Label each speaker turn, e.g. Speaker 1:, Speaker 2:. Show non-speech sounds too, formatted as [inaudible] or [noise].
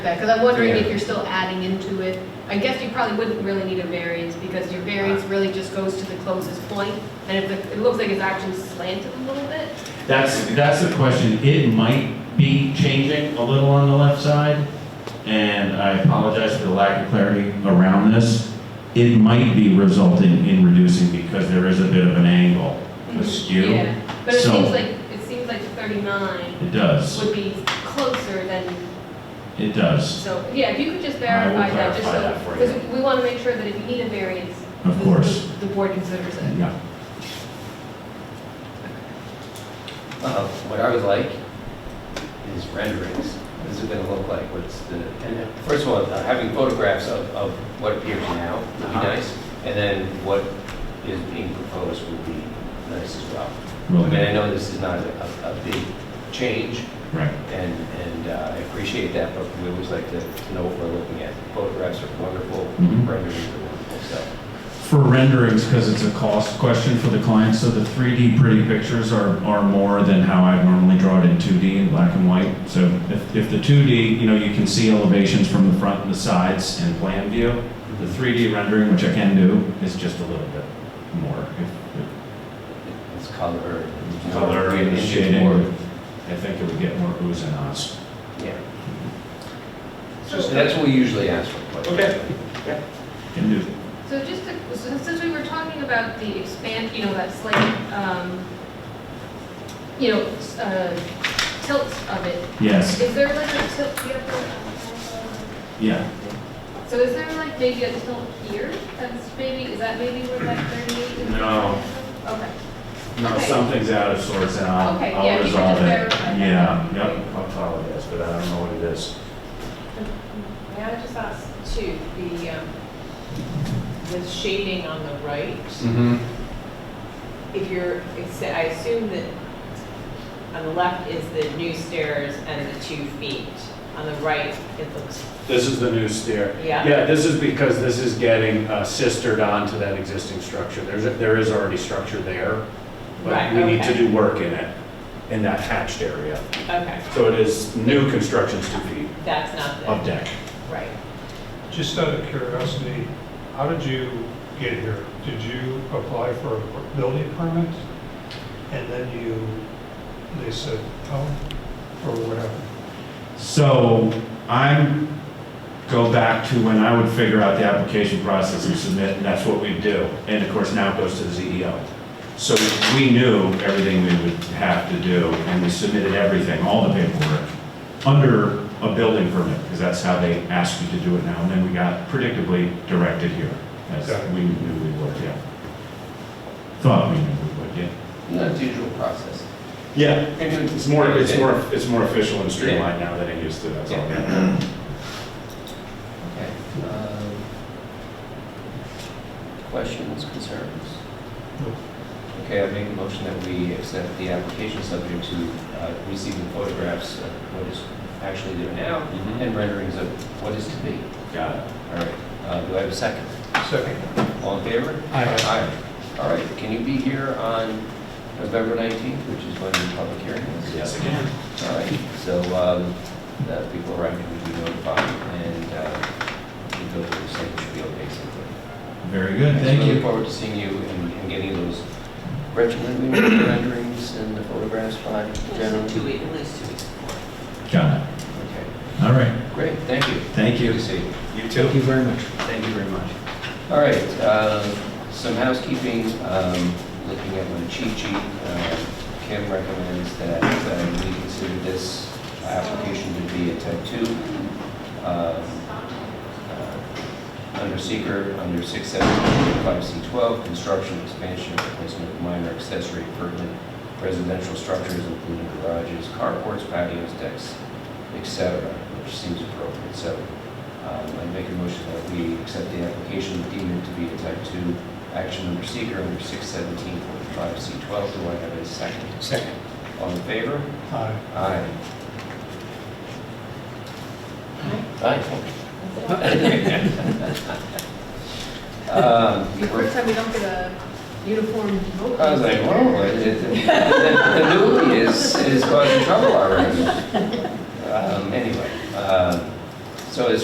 Speaker 1: Because I'm wondering if
Speaker 2: Yeah.
Speaker 1: you're still adding into it. I guess you probably wouldn't really need a variance because your variance really just goes to the closest point, And if the- it looks like it's actually slanted a little bit.
Speaker 2: That's, that's the question. It might be changing a little on the left side, and I apologize for the lack of clarity around this. It might be resulting in reducing because there is a bit of an angle askew.
Speaker 1: Yeah, But it
Speaker 2: So-
Speaker 1: seems like, it seems like 39
Speaker 2: It does,
Speaker 1: would be closer than,
Speaker 2: it does,
Speaker 1: so, yeah, if you could just
Speaker 2: I will
Speaker 1: verify that, just
Speaker 2: clarify
Speaker 1: so.
Speaker 2: that for you.
Speaker 1: Because we want to make sure that if you need a variance.
Speaker 2: Of
Speaker 1: the-
Speaker 2: course.
Speaker 1: The board considers it.
Speaker 2: yeah.
Speaker 3: Uh, What I would like is renderings. This is gonna look like what's the, and first of all, uh, having photographs of, of what appears now would be
Speaker 2: Uh-huh.
Speaker 3: nice. And then what is being proposed would be nice as well. I mean,
Speaker 2: Really,
Speaker 3: I know this is not a, a- a big change
Speaker 2: right.
Speaker 3: and, and uh, I appreciate that, but we always like to to know what we're looking at. Photographs are wonderful,
Speaker 2: Mhm.
Speaker 3: renderings are wonderful, so.
Speaker 2: For renderings, because it's a cost question for the client, so the 3D pretty pictures are, are more than how I'd normally draw it in 2D in black and white. So if, if the 2D, you know, you can see elevations from the front and the sides in plan view. The 3D rendering, which I can do, is just a little bit more. if-
Speaker 3: It's color.
Speaker 2: if
Speaker 3: and-
Speaker 2: Color and
Speaker 3: and
Speaker 2: the
Speaker 3: it's
Speaker 2: shading,
Speaker 3: more-
Speaker 2: I think it would get more oohs and ahs.
Speaker 3: Yeah,
Speaker 1: So-
Speaker 3: so that's what we usually ask for. but-
Speaker 2: Okay. Can do.
Speaker 1: So just, to- so since we were talking about the expand, you know, that slight, um, you know, s- uh, tilt of it,
Speaker 2: Yes,
Speaker 1: is there like a tilt, do you have the-
Speaker 2: yeah.
Speaker 1: so is there like maybe a tilt here? That's maybe, is that maybe where like 38 is?
Speaker 2: No.
Speaker 1: Okay.
Speaker 2: No,
Speaker 1: Okay.
Speaker 2: something's out of sorts and I'll,
Speaker 1: Okay, yeah,
Speaker 2: I'll
Speaker 1: you can
Speaker 2: resolve
Speaker 1: just
Speaker 2: it.
Speaker 1: verify that.
Speaker 2: Yeah, yep, I apologize, but I don't know what it is.
Speaker 4: May I just ask too, the, um, the shading on the right,
Speaker 3: Mm-hmm.
Speaker 4: if you're, it's- I assume that on the left is the new stairs and the two feet. On the right, it looks,
Speaker 5: This is the new stair.
Speaker 4: Yeah.
Speaker 5: Yeah, this is because this is getting uh, sistered onto that existing structure. There's, a- there is already structure there, but
Speaker 4: Right,
Speaker 5: we need to
Speaker 4: okay.
Speaker 5: do work in it, in that hatched area.
Speaker 4: okay,
Speaker 5: So it is new constructions to feet
Speaker 4: that's not
Speaker 5: of
Speaker 4: the,
Speaker 5: deck.
Speaker 4: right.
Speaker 6: Just out of curiosity, how did you get here? Did you apply for a building permit? And then you, they said, oh, or what happened?
Speaker 2: So I'm, go back to when I would figure out the application process and submit, and that's what we do. And of course, now it goes to the CEO. So we knew everything we would have to do, and we submitted everything, all the paperwork, under a building permit, because that's how they ask you to do it now. And then we got predictably directed here, as
Speaker 6: Okay.
Speaker 2: we knew we would, yeah. Thought we knew we would, yeah.
Speaker 3: No, it's usual process.
Speaker 2: Yeah, it's more, it's more, it's more official and streamlined now than it used to, that's all.
Speaker 3: Okay. um, Questions, concerns?
Speaker 6: No.
Speaker 3: Okay, I make a motion that we accept the application subject to uh, receiving photographs of what is actually there now
Speaker 2: Mhm.
Speaker 3: and renderings of what is to be.
Speaker 2: Got it.
Speaker 3: All right, uh, do I have a second?
Speaker 6: Second.
Speaker 3: All in favor? Aye. All right, can you be here on November 19th, which is when the public hearing is?
Speaker 2: Yes, again.
Speaker 3: All right, so um, the people around you will be notified and uh, we go through the same spiel basically.
Speaker 2: Very good,
Speaker 3: So
Speaker 2: thank
Speaker 3: we Look
Speaker 2: you.
Speaker 3: forward to seeing you and and getting those regimen renderings and the photographs by
Speaker 4: At least
Speaker 3: general.
Speaker 4: two weeks, at least two weeks before.
Speaker 2: Got
Speaker 3: Okay,
Speaker 2: it. All right,
Speaker 3: great, thank you.
Speaker 2: thank
Speaker 3: Good to
Speaker 2: you.
Speaker 3: see you.
Speaker 2: You too. Thank you very much. Thank you very much.
Speaker 3: All right, uh, some housekeeping, um, looking at my cheat sheet, uh, Kim recommends that uh, we consider this application to be a type two. um, uh, Under seeker, under six seventeen, five C twelve, construction, expansion, replacement of minor accessory pertinent residential structures, including garages, carports, patios, decks, et cetera, which seems appropriate. So um, I make a motion that we accept the application deemed it to be a type 2 action under seeker under 617.45C12. Do I have a second? Second. All in favor?
Speaker 6: Aye.
Speaker 3: Aye. Aye. Um,
Speaker 1: Be the first time we don't get a uniform vote.
Speaker 3: [laughs] I was like, whoa, it- it- the the newbie is, is causing trouble already. Um, Anyway, um, So it's